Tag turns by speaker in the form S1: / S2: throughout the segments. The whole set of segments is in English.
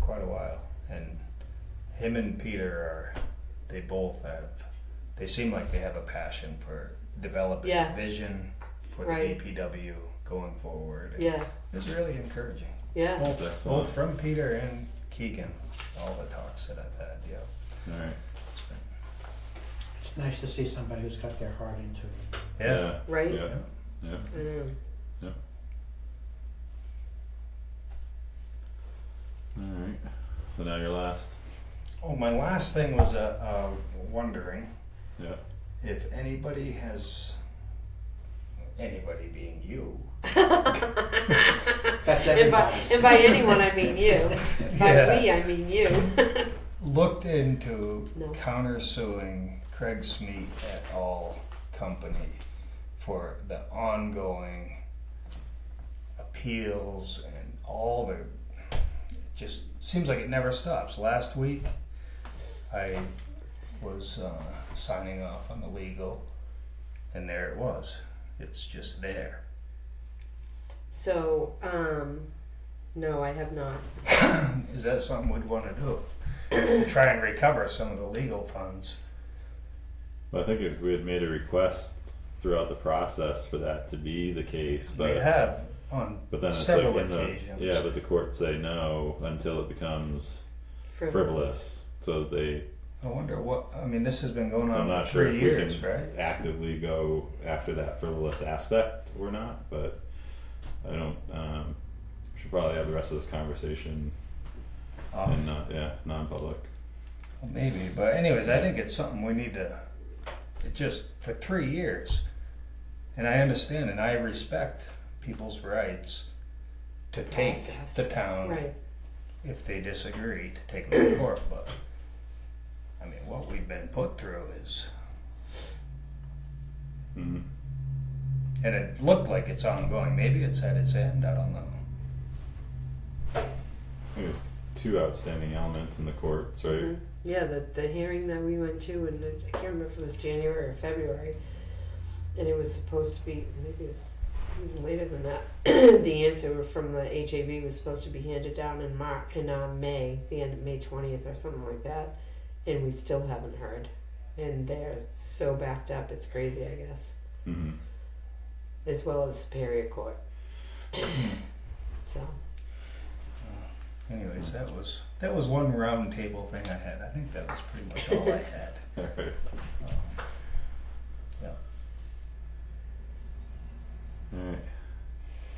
S1: quite a while, and him and Peter are they both have they seem like they have a passion for developing
S2: Yeah.
S1: a vision for
S2: Right.
S1: the DPW going forward.
S2: Yeah,
S1: It's really encouraging.
S2: yeah.
S1: Both,
S3: Excellent.
S1: both from Peter and Keegan, all the talks that I've had. Yeah,
S3: All right.
S1: it's been-
S4: It's nice to see somebody who's got their heart into it.
S1: yeah.
S2: Right?
S3: Yeah. Yeah.
S2: I know.
S3: All right. So now you're last.
S1: Oh, my last thing was uh, uh, wondering
S3: Yeah.
S1: if anybody has anybody being you.
S4: That's
S2: And by,
S4: everybody.
S2: and by anyone, I mean you. By we, I mean you.
S1: looked into
S2: No.
S1: countersuing Craig Smeet et al. company for the ongoing appeals and all the. It just seems like it never stops. Last week, I was uh, signing off on the legal, and there it was. It's just there.
S2: So, um, no, I have not.
S1: Is that something we'd want to do? Try and recover some of the legal funds.
S3: Well, I think if we had made a request throughout the process for that to be the case, but
S1: They have on
S3: but then it's
S1: several
S3: like in the
S1: occasions.
S3: yeah, but the courts say no until it becomes
S2: Frivolous.
S3: frivolous. So they,
S1: I wonder what, I mean, this has been going
S3: so I'm
S1: on
S3: not
S1: for
S3: sure
S1: three
S3: if we
S1: years,
S3: can
S1: right?
S3: actively go after that frivolous aspect or not. But I don't. Um, we should probably have the rest of this conversation
S1: Off.
S3: and not yeah non-public.
S1: Well, Maybe, but anyways, I think it's something we need to, it just, for three years. And I understand and I respect people's rights to take
S2: Process.
S1: the town,
S2: Right.
S1: if they disagree, to take them to court, but. I mean, what we've been put through is,
S3: Mm-hmm.
S1: and it looked like it's ongoing, maybe it's at its end, I don't know.
S3: I think there's two outstanding elements in the courts, right?
S2: Mhm. Yeah, the, the hearing that we went to, and I can't remember if it was January or February, and it was supposed to be, maybe it was even later than that. the answer from the HAB was supposed to be handed down in Mar- in uh, May, the end of May 20th or something like that, and we still haven't heard. And they're so backed up, it's crazy, I guess,
S3: Mm-hmm.
S2: as well as Superior Court. so,
S1: Anyways, that was, that was one round table thing I had, I think that was pretty much all I had.
S3: All right.
S1: Yeah.
S3: All right.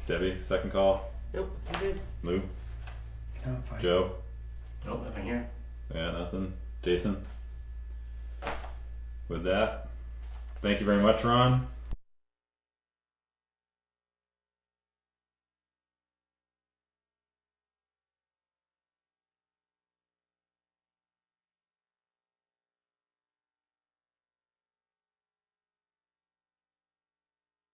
S3: Debbie, second call.
S2: nope, I'm good.
S3: Lou,
S4: No, I'm fine.
S3: Joe,
S5: Nope, nothing here.
S3: yeah, nothing. Jason. With that, thank you very much, Ron.